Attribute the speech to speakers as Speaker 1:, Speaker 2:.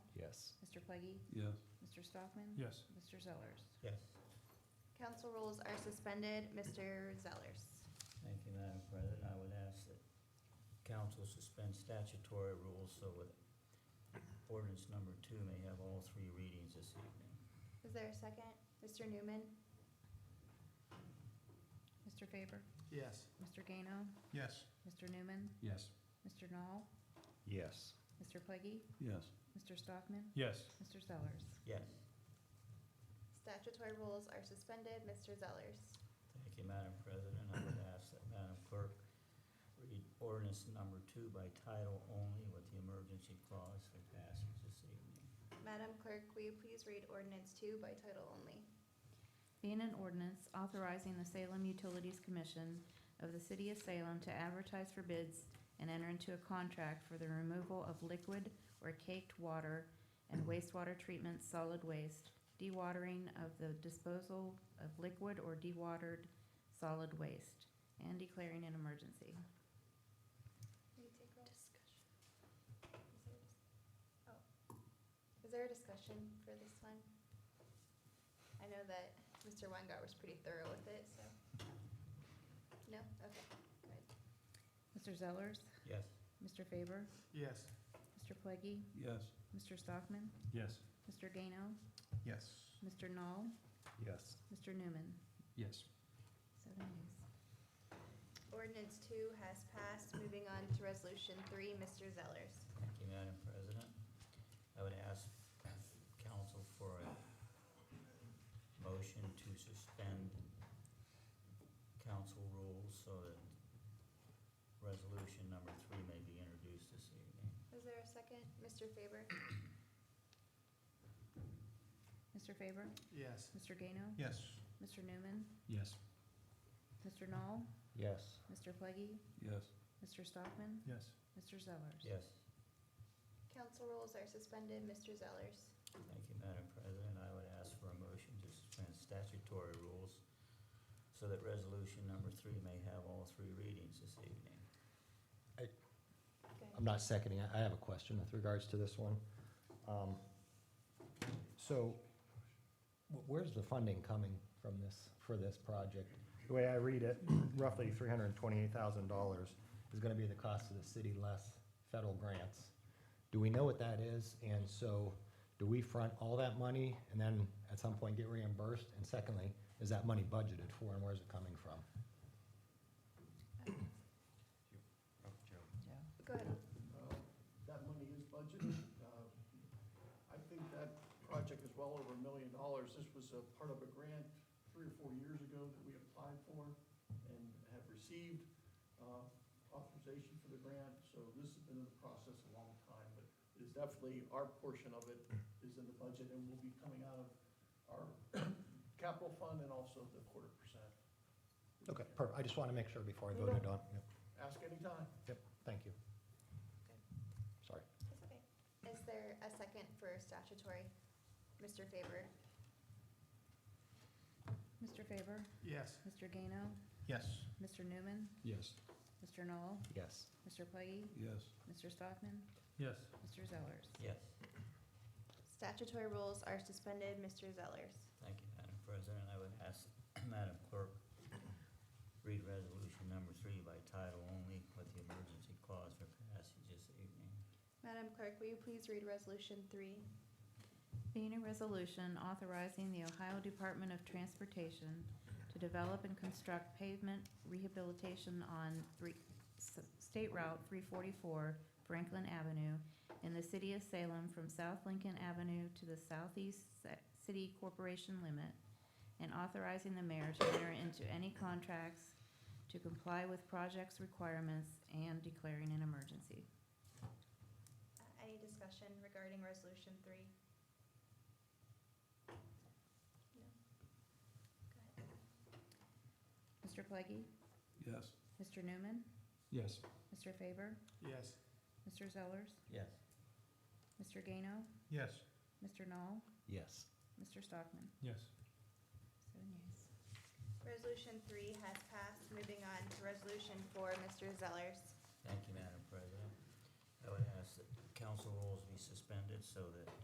Speaker 1: Yes.
Speaker 2: Mr. Pleggy,
Speaker 3: Yes.
Speaker 2: Mr. Stockman?
Speaker 3: Yes.
Speaker 2: Mr. Zellers?
Speaker 4: Yes.
Speaker 5: Council rules are suspended. Mr. Zellers.
Speaker 4: Thank you, Madam President. I would ask that council suspend statutory rules so that ordinance number two may have all three readings this evening.
Speaker 5: Is there a second? Mr. Newman?
Speaker 2: Mr. Faber?
Speaker 6: Yes.
Speaker 2: Mr. Gano?
Speaker 6: Yes.
Speaker 2: Mr. Newman?
Speaker 3: Yes.
Speaker 2: Mr. Knoll?
Speaker 1: Yes.
Speaker 2: Mr. Pleggy,
Speaker 3: Yes.
Speaker 2: Mr. Stockman?
Speaker 3: Yes.
Speaker 2: Mr. Zellers?
Speaker 4: Yes.
Speaker 5: Statutory rules are suspended. Mr. Zellers.
Speaker 4: Thank you, Madam President. I would ask that Madam Clerk read ordinance number two by title only with the emergency clause for passage this evening.
Speaker 5: Madam Clerk, will you please read ordinance two by title only?
Speaker 2: Being an ordinance authorizing the Salem Utilities Commission of the City of Salem to advertise for bids and enter into a contract for the removal of liquid or caked water and wastewater treatment solid waste, dewatering of the disposal of liquid or dewatered solid waste, and declaring an emergency.
Speaker 5: Will you take roll? Discussion. Oh. Is there a discussion for this one? I know that Mr. Weingart was pretty thorough with it, so. No? Okay, good.
Speaker 2: Mr. Zellers,
Speaker 4: Yes.
Speaker 2: Mr. Faber,
Speaker 6: Yes.
Speaker 2: Mr. Pleggy,
Speaker 3: Yes.
Speaker 2: Mr. Stockman,
Speaker 3: Yes.
Speaker 2: Mr. Gano,
Speaker 6: Yes.
Speaker 2: Mr. Knoll,
Speaker 1: Yes.
Speaker 2: Mr. Newman.
Speaker 3: Yes.
Speaker 2: Seven ayes.
Speaker 5: Ordinance two has passed. Moving on to resolution three, Mr. Zellers.
Speaker 4: Thank you, Madam President. I would ask council for a motion to suspend council rules so that resolution number three may be introduced this evening.
Speaker 5: Is there a second? Mr. Faber?
Speaker 2: Mr. Faber,
Speaker 6: Yes.
Speaker 2: Mr. Gano,
Speaker 6: Yes.
Speaker 2: Mr. Newman,
Speaker 3: Yes.
Speaker 2: Mr. Knoll,
Speaker 1: Yes.
Speaker 2: Mr. Pleggy,
Speaker 3: Yes.
Speaker 2: Mr. Stockman,
Speaker 6: Yes.
Speaker 2: Mr. Zellers.
Speaker 4: Yes,
Speaker 5: Council rules are suspended. Mr. Zellers.
Speaker 4: thank you, Madam President. I would ask for a motion to suspend statutory rules so that resolution number three may have all three readings this evening.
Speaker 5: Go ahead.
Speaker 1: I'm not seconding. I I have a question with regards to this one. Um, So wh- where's the funding coming from this, for this project? The way I read it, roughly $328,000 is going to be the cost of the city less federal grants. Do we know what that is? And so do we front all that money and then at some point get reimbursed? And secondly, is that money budgeted for and where's it coming from?
Speaker 2: Joe.
Speaker 5: Go ahead.
Speaker 7: Uh, That money is budgeted. Uh, I think that project is well over a million dollars. This was a part of a grant three or four years ago that we applied for and have received uh, authorization for the grant, so this has been in the process a long time, but it is definitely, our portion of it is in the budget and will be coming out of our capital fund and also the quarter percent.
Speaker 1: Okay, perfect. I just want to make sure before I voted on. Yep,
Speaker 7: Ask anytime.
Speaker 1: Yep, thank you.
Speaker 5: Good.
Speaker 1: Sorry.
Speaker 5: That's okay. Is there a second for statutory? Mr. Faber?
Speaker 2: Mr. Faber,
Speaker 6: Yes.
Speaker 2: Mr. Gano,
Speaker 6: Yes.
Speaker 2: Mr. Newman,
Speaker 3: Yes.
Speaker 2: Mr. Knoll,
Speaker 1: Yes.
Speaker 2: Mr. Pleggy,
Speaker 3: Yes.
Speaker 2: Mr. Stockman,
Speaker 3: Yes.
Speaker 2: Mr. Zellers.
Speaker 4: Yes,
Speaker 5: Statutory rules are suspended. Mr. Zellers.
Speaker 4: thank you, Madam President. I would ask Madam Clerk read resolution number three by title only with the emergency clause for passage this evening.
Speaker 5: Madam Clerk, will you please read resolution three?
Speaker 2: Being a resolution authorizing the Ohio Department of Transportation to develop and construct pavement rehabilitation on three, S- State Route three forty-four Franklin Avenue in the city of Salem from South Lincoln Avenue to the southeast se- city corporation limit, and authorizing the mayor to enter into any contracts to comply with project's requirements and declaring an emergency.
Speaker 5: Uh, Any discussion regarding resolution three? No? Go ahead.
Speaker 2: Mr. Pleggy,
Speaker 3: Yes.
Speaker 2: Mr. Newman,
Speaker 3: Yes.
Speaker 2: Mr. Faber,
Speaker 6: Yes.
Speaker 2: Mr. Zellers,
Speaker 4: Yes.
Speaker 2: Mr. Gano,
Speaker 6: Yes.
Speaker 2: Mr. Knoll,
Speaker 1: Yes.
Speaker 2: Mr. Stockman.
Speaker 3: Yes.
Speaker 2: Seven yeas.
Speaker 5: Resolution three has passed. Moving on to resolution four, Mr. Zellers.
Speaker 4: Thank you, Madam President. I would ask that council rules be suspended so that